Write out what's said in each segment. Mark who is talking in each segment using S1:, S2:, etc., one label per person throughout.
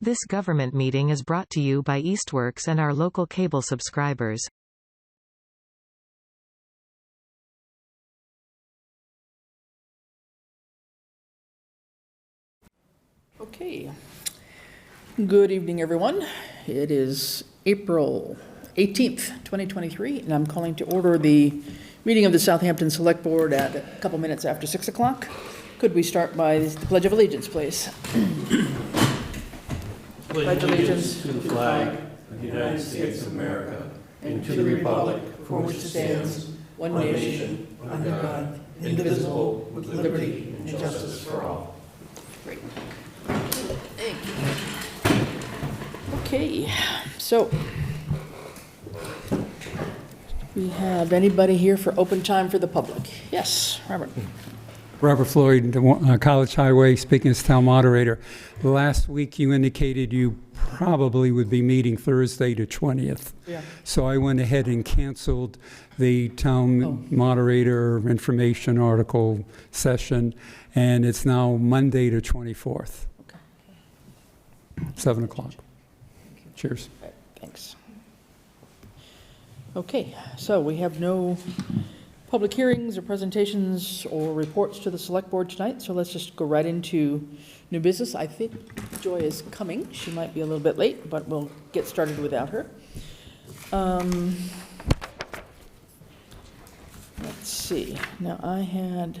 S1: This government meeting is brought to you by Eastworks and our local cable subscribers.
S2: Okay. Good evening, everyone. It is April 18th, 2023, and I'm calling to order the meeting of the Southampton Select Board at a couple minutes after 6 o'clock. Could we start by the Pledge of Allegiance, please? Pledge allegiance to the flag of the United States of America and to the republic for which it stands, one nation, under God, indivisible, with liberty and justice for all. Great. Okay, so we have anybody here for open time for the public? Yes, Robert.
S3: Robert Floyd, uh, College Highway, speaking as town moderator. Last week, you indicated you probably would be meeting Thursday the 20th.
S2: Yeah.
S3: So I went ahead and canceled the town moderator information article session, and it's now Monday the 24th, 7 o'clock. Cheers.
S2: Thanks. Okay, so we have no public hearings or presentations or reports to the select board tonight, so let's just go right into new business. I think Joy is coming. She might be a little bit late, but we'll get started without her. Um, Let's see, now I had,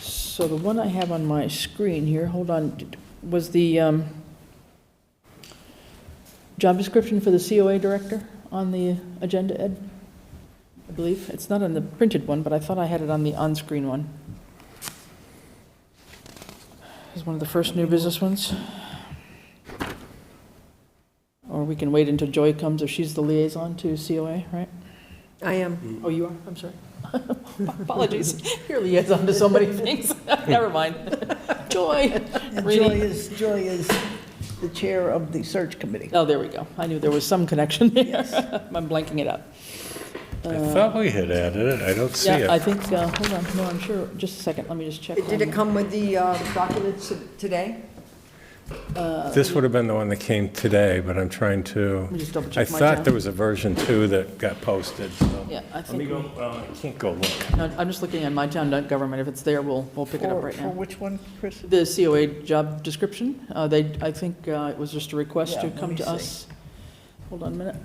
S2: so the one I have on my screen here, hold on, Did- was the um, job description for the COA director on the agenda, Ed? I believe, it's not on the printed one, but I thought I had it on the on-screen one. It was one of the first new business ones. Or we can wait until Joy comes, if she's the liaison to COA, right?
S4: I am.
S2: Oh, you are, I'm sorry. Apologies, you're liaison to so many things, never mind. Joy,
S5: And Joy
S2: Really?
S5: is, Joy is the chair of the search committee.
S2: oh, there we go, I knew there was some connection there,
S5: Yes.
S2: I'm blanking it up.
S6: I thought we had added it, I don't see
S2: Yeah, I
S6: it.
S2: think, uh, hold on, no, I'm sure, just a second, let me just check.
S4: Did
S2: on-
S4: it come with the uh, documents today?
S6: This would have been the one that came today, but I'm trying to,
S2: Let me just double
S6: I
S2: check my
S6: thought there
S2: town.
S6: was a version two that got posted, so.
S2: Yeah, I
S6: Let me
S2: think,
S6: go, uh,
S2: we-
S6: well, I can't go look.
S2: no, I'm just looking at my town government, if it's there, we'll, we'll pick it up
S5: For,
S2: right
S5: for
S2: now.
S5: which one, Chris?
S2: The COA job description, uh, they, I think uh, it was just a request
S5: Yeah,
S2: to
S5: let
S2: come
S5: me
S2: to
S5: see.
S2: us. Hold on a minute.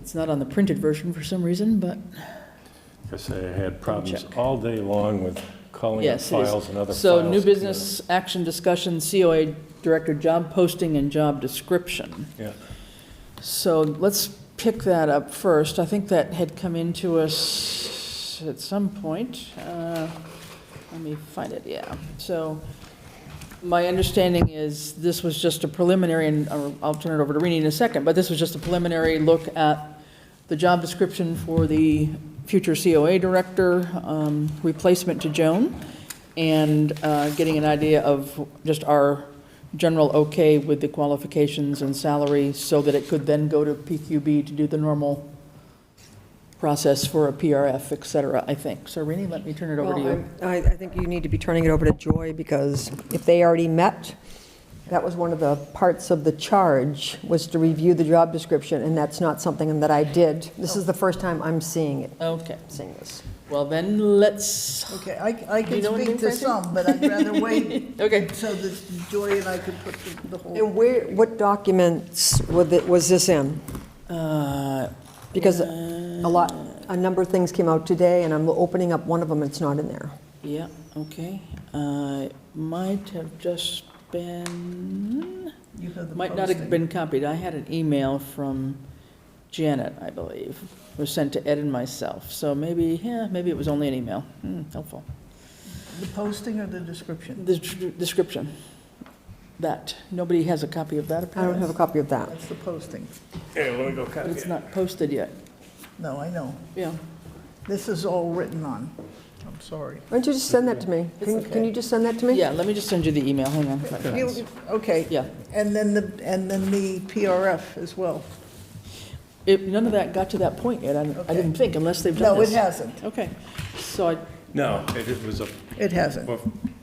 S2: It's not on the printed version for some reason, but,
S6: I say I had problems
S2: check.
S6: all day long with calling up
S2: yes, it
S6: files and other
S2: is.
S6: files.
S2: So new business, action discussion, COA director job posting and job description.
S6: Yeah,
S2: So let's pick that up first. I think that had come into us at some point. Uh, Let me find it, yeah. So my understanding is this was just a preliminary, and I'll I'll turn it over to Rini in a second, but this was just a preliminary look at the job description for the future COA director, um, replacement to Joan, and uh, getting an idea of just our general okay with the qualifications and salary so that it could then go to PQB to do the normal process for a PRF, et cetera, I think. So Rini, let me turn it over to
S4: Well,
S2: you.
S4: I'm- I, I think you need to be turning it over to Joy, because if they already met, that was one of the parts of the charge, was to review the job description, and that's not something that I did. This is the first time I'm seeing it,
S2: Okay,
S4: seeing this.
S2: well then, let's,
S5: Okay, I, I
S2: You
S5: can
S2: know what I mean,
S5: speak to
S2: Francie?
S5: some, but I'd rather wait
S2: okay.
S5: so that Joy and I could put the- the whole.
S4: And where, what documents were thi- was this in?
S2: Uh,
S4: Because a lot, a number of things came out today, and I'm opening up one of them, it's not in there.
S2: Yeah, okay. Uh, Might have just been,
S5: you have the
S2: might not have
S5: posting.
S2: been copied. I had an email from Janet, I believe, was sent to Ed and myself. So maybe, yeah, maybe it was only an email. Hmm, Helpful.
S5: The posting or the description?
S2: The tr- description, that, nobody has a copy of that
S4: I don't
S2: apparently.
S4: have a copy of that.
S5: That's the posting.
S6: here, let me go
S2: But
S6: copy
S2: it's
S6: it.
S2: not posted yet.
S5: No, I know.
S2: Yeah,
S5: This is all written on. I'm sorry.
S4: Why don't you just send that to me? Can can you just send that to me?
S2: yeah, let me just send you the email, hang on. if I find
S5: You-
S2: it.
S5: Okay.
S2: Yeah.
S5: And then the, and then the PRF as well.
S2: It, none of that got to that point yet, I, I
S5: Okay.
S2: didn't think, unless they've done
S5: No, it
S2: this.
S5: hasn't.
S2: Okay, so I,
S6: No, it it was a,
S5: It hasn't.
S6: well,